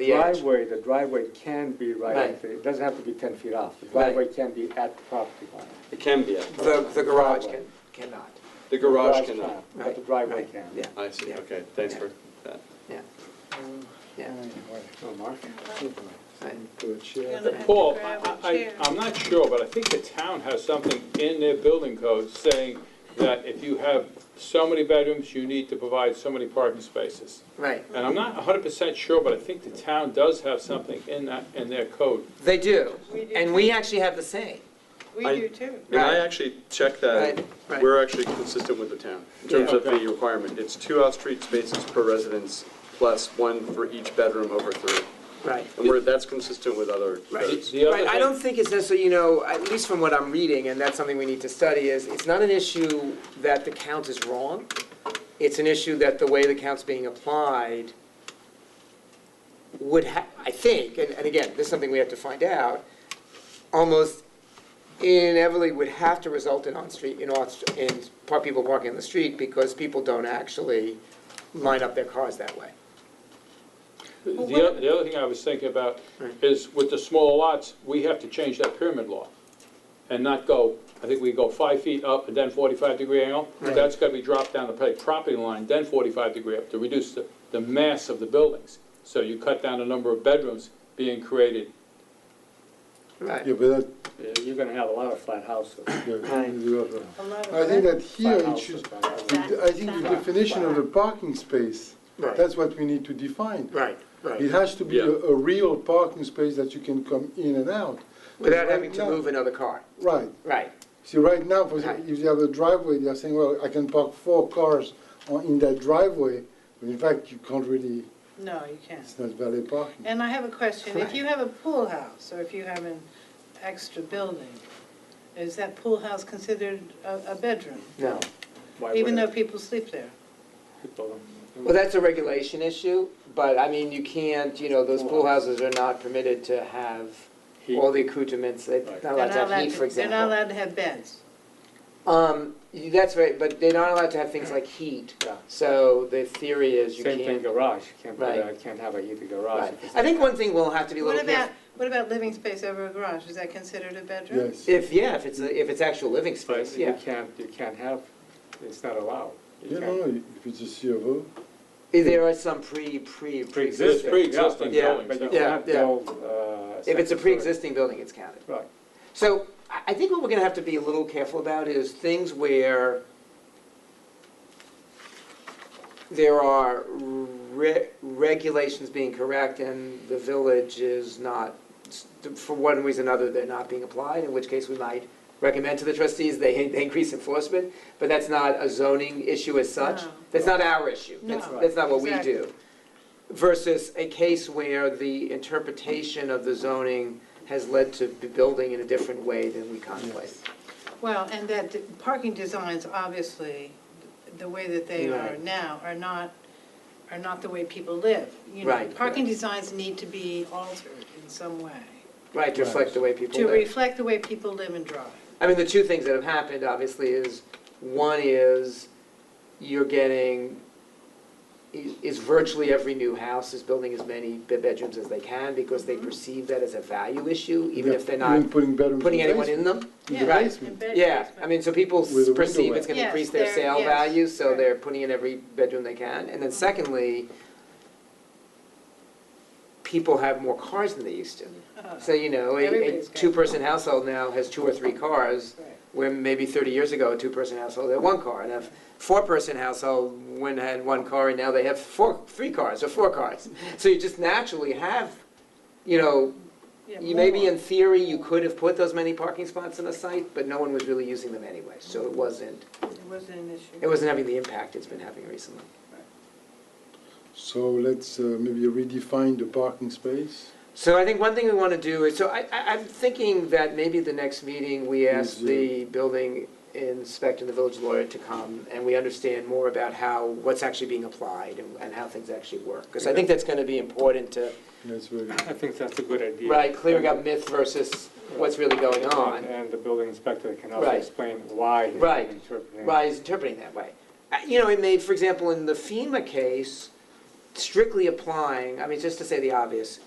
the edge. Driveway, the driveway can be right, Right. at the- it doesn't have to be 10 feet off. The driveway can be at the property line. It can be, a- The, the garage can, cannot. the The garage cannot. But the Right, driveway right, can. Yeah. Mm. I see, yeah, okay, thanks for that. Yeah, yeah, Oh, Mark? right. Paul, I, um, I, I'm not sure, but I think the town has something in their building code saying that if you have so many bedrooms, you need to provide so many parking spaces. right. And I'm not hundred percent sure, but I think the town does have something in that, in their code. They do, We do and we actually have the same. We I- do too. And I Right. actually checked that, Right, right. we're actually consistent with the town in terms Yeah. of the requirement. It's two off-street spaces per residence plus one for each bedroom over three. Right. And we're, that's consistent with other Right. codes. The other Right, I thing- don't think it's necessarily, you know, at least from what I'm reading, and that's something we need to study, is it's not an issue that the count is wrong. It's an issue that the way the count's being applied would ha, I think, and, and again, this is something we have to find out, almost inevitably would have to result in on-street, in off, in par- people parking on the street because people don't actually line up their cars that way. The, oth- the other thing I was thinking about Right. is with the smaller lots, we have to change that pyramid law and not go, I think we go five feet up and then forty-five degree angle. Right. That's gotta be dropped down to pay property line, then forty-five degree up to reduce the, the mass of the buildings. So you cut down the number of bedrooms being created. Right. Yeah, but that, Yeah, You're going to have a lot of flat houses. A yeah, lot of I think that- that here it should, I think the definition of the parking space, Right. that's what we need to define. Right, It right, has to be a, Yeah. a real parking space that you can come in and out. without Right having to now- move another car, Right, right. see, right now, for Right. example, if you have a driveway, they're saying, well, I can park four cars on, in that driveway, but in fact, you can't really, No, you can't. it's not valet parking. And I have a question. If Right. you have a pool house, or if you have an extra building, is that pool house considered a, a bedroom? No. Why Even though would people sleep there? people- Well, that's a regulation issue, but I mean, you can't, you know, those pool houses are not permitted to have all the accoutrements, they're not Right. allowed to They're have heat, to- for They're not example. allowed to have beds. Um, you- that's right, but they're not allowed to have things like heat, Yeah. so the theory is you Same thing can't. garage, can't put Right. a- can't have a heated garage. Right. if it's- I think one thing we'll have to be a What little about, careful, what about living space over a garage? Is that considered a bedroom? Yes, if, yeah, if it's, a- if it's actual living But space, you yeah. can't, you can't have, it's not allowed. You you know, can't- if it's a C of O, There are some pre, pre, There's pre-existing. pre-existing Yeah, buildings. But you so- Yeah, can't yeah. build, uh. If it's a second story. pre-existing building, it's counted. Right. So I I think what we're gonna have to be a little careful about is things where there are re- regulations being correct and the village is not, for one reason or another, they're not being applied, in which case we might recommend to the trustees they they increase enforcement, but that's not a zoning issue as such. No. That's not our issue. That's, No, that's not what we exactly. do. Versus a case where the interpretation of the zoning has led to b- building in a different way than we contemplate. Well, and that the parking designs, obviously, the way that they are Right. now, are not, are not the way people live. You know, Right. Parking designs need to be altered in some way Right, to reflect the way people to live. reflect the way people live and drive. I mean, the two things that have happened, obviously, is, one is, you're getting, i- is virtually every new house is building as many be- bedrooms as they can, because Mm-hmm. they perceive that as a value issue, even if they're not even putting bedrooms putting in anyone basement. in them. Yeah, Right. and bed Yeah, basement. I mean, so people With a window perceive well. it's gonna Yes, increase their they're- sale yes, Mm-hmm. value, so right. they're putting in every bedroom they can. And then secondly, people have more cars than they used to. Uh, So, you know, a- a Everybody's got- two-person household now has two or three cars, right. where maybe thirty years ago, a two-person household had one car. And a four-person household, one had one car, and now they have four, three cars or four cars. So you just naturally have, you know, Yeah, you maybe more. in theory, you could have put those many parking spots on a site, but no one was really using them anyway, so it wasn't, It wasn't an it issue. wasn't having the impact it's been having recently. So let's uh, maybe redefine the parking space. So I think one thing we want to do is, so I, I, I'm thinking that maybe the next meeting, we ask Yes, yeah. the building inspector and the village lawyer to come, and we understand more about how, what's actually being applied and, and how things actually work. Because I think that's going to be important to, That's very, I think that's a good idea. right, clearing up myth versus what's really going on. And- And the building inspector can also Right. explain why he's Right. interpreting. Why is interpreting that way. Uh, You know, it made, for example, in the FEMA case, strictly applying, I mean, just to say the obvious,